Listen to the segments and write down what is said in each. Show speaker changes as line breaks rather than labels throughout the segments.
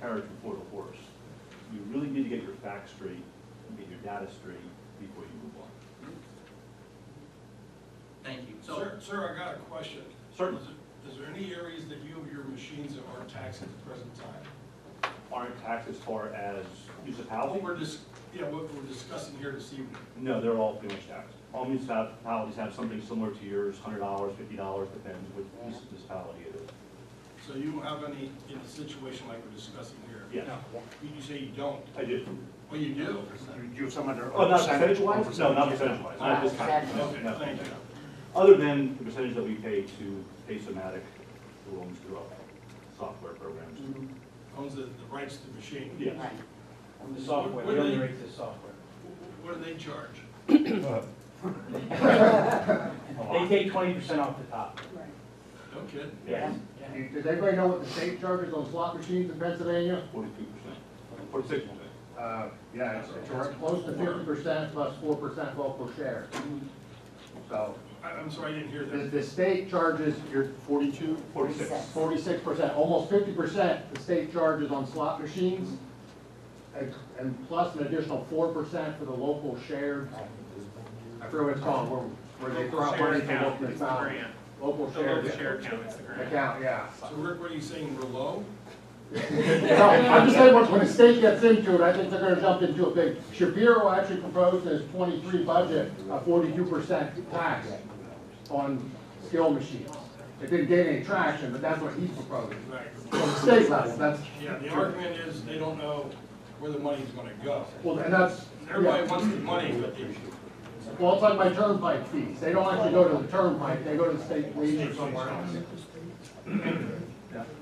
carriage before the horse. You really need to get your facts straight, and get your data straight before you move on.
Thank you. So,
Sir, sir, I got a question.
Certainly.
Is is there any areas that you have your machines that aren't taxed at the present time?
Aren't taxed as far as use of
What
housing?
we're dis, yeah, what we're discussing here this evening.
No, they're all pretty much taxed. All municipalities have something similar to yours, hundred dollars, fifty dollars, depends which municipality it is.
So you don't have any in a situation like we're discussing here?
Yes.
No. You you say you don't.
I do.
Well, you do.
You have some under.
Oh, not percentage-wise? No, not percentage-wise, not this kind. No,
Ah, Okay,
no.
thank you.
Other than the percentage that we pay to Paysomatic, who owns the software programs.
Owns the, the rights to the machine.
Yes.
Right.
The software,
What
we
do they-
underrate the software.
Wh- What do they charge?
Oh,
A
They
lot.
take twenty percent off the top.
No kidding.
Yeah,
Yeah.
Does everybody know what the state charges on slot machines in Pennsylvania?
forty-two percent, forty-six percent.
Uh, yeah, it's, it's around close to fifty percent plus four percent local share. So,
I, I'm sorry, I didn't hear
the,
that.
the state charges your forty-two,
Forty-six.
forty-six percent, almost fifty percent the state charges on slot machines. And, and plus an additional four percent for the local shared, I forget what it's called, where, where they throw out money from local account. Local shared account, yeah.
So Rick, what are you saying, we're low?
No, I'm just saying, when when the state gets into it, I think they're gonna jump into a big, Shapiro actually proposed in his twenty-three budget, a forty-two percent tax on skill machines. It didn't gain any traction, but that's what he's proposing,
Right.
from the state level, that's,
Yeah, the argument is they don't know where the money's gonna go.
well, and that's,
Everybody
yeah.
wants the money, but they,
Well, it's like my turnpike fees, they don't actually go to the turnpike, they go to the state police or somewhere else.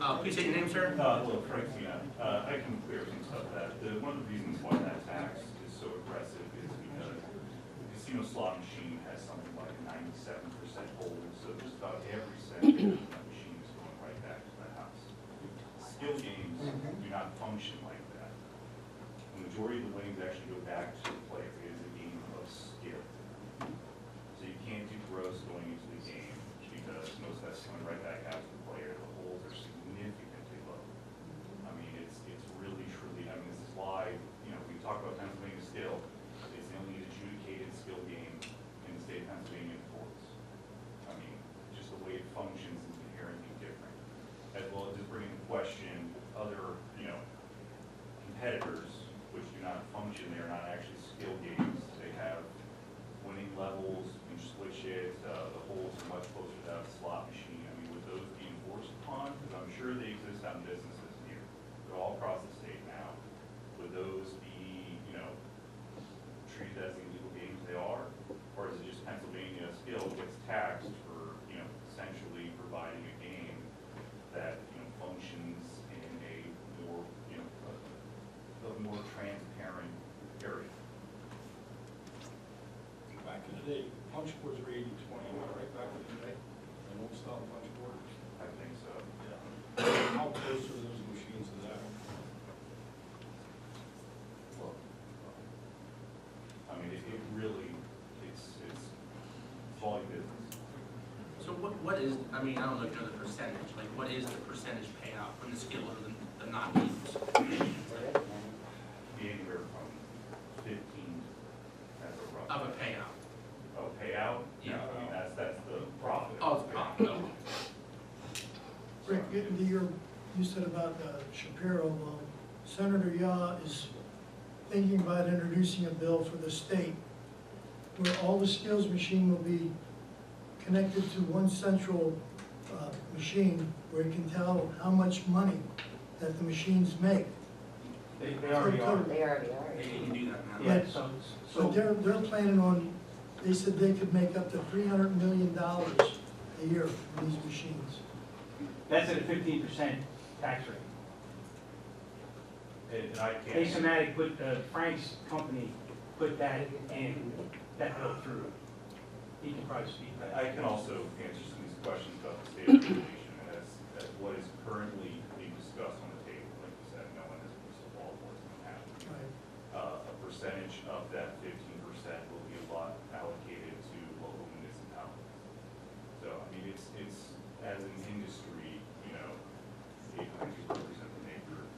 uh, please state your name, sir.
Uh, Hello, Frank Fiat. Uh, I can clear things up that. The, one of the reasons why that tax is so aggressive is because the casino slot machine has something like ninety-seven percent hold, so just about every cent of that machine is going right back to the house. Skill games do not function like that. The majority of the winnings actually go back to the player. It is a game of skill. So you can't do gross going into the game because most of that's coming right back out to the player. The holes are significantly low. I mean, it's, it's really truly, I mean, this is why, you know, we talk about Pennsylvania skill. It's the only adjudicated skill game in the state of Pennsylvania in courts. I mean, just the way it functions is inherently different. As well as just bringing into question other, you know, competitors which do not function, they are not actually skill games. They have winning levels, you can switch it, uh, the holes are much closer to that slot machine. I mean, would those be enforced upon? Because I'm sure they exist on businesses here, they're all across the state now. Would those be, you know, treated as illegal games they are? Or is it just Pennsylvania still gets taxed for, you know, essentially providing a game that, you know, functions in a more, you know, a, a more transparent area?
back in the day, punch boards were eighty twenty, right back in the day. I don't stop punch boards.
I think so.
Yeah. How close are those machines to that?
I mean, it, it really, it's, it's volume business.
So what, what is, I mean, I don't know if you know the percentage, like what is the percentage payout from the skill of the, the non-games?
Be anywhere from fifteen as a rough.
Of a payout?
Oh, payout?
Yeah.
I mean, that's, that's the profit.
Oh, it's profit, okay.
Rick, getting to your, you said about uh, Shapiro, well, Senator Yaw is thinking about introducing a bill for the state where all the skills machine will be connected to one central uh, machine where it can tell how much money that the machines make.
They, they already are.
They already are.
They can do that now.
Yeah, so,
So
so,
they're, they're planning on, they said they could make up to three hundred million dollars a year from these machines.
that's at a fifteen percent tax rate.
And and I can't.
Asomatic put, uh, Frank's company put that in, that bill through. He can probably speak to that.
I I can also answer some of these questions about the state regulation as, as what is currently uh,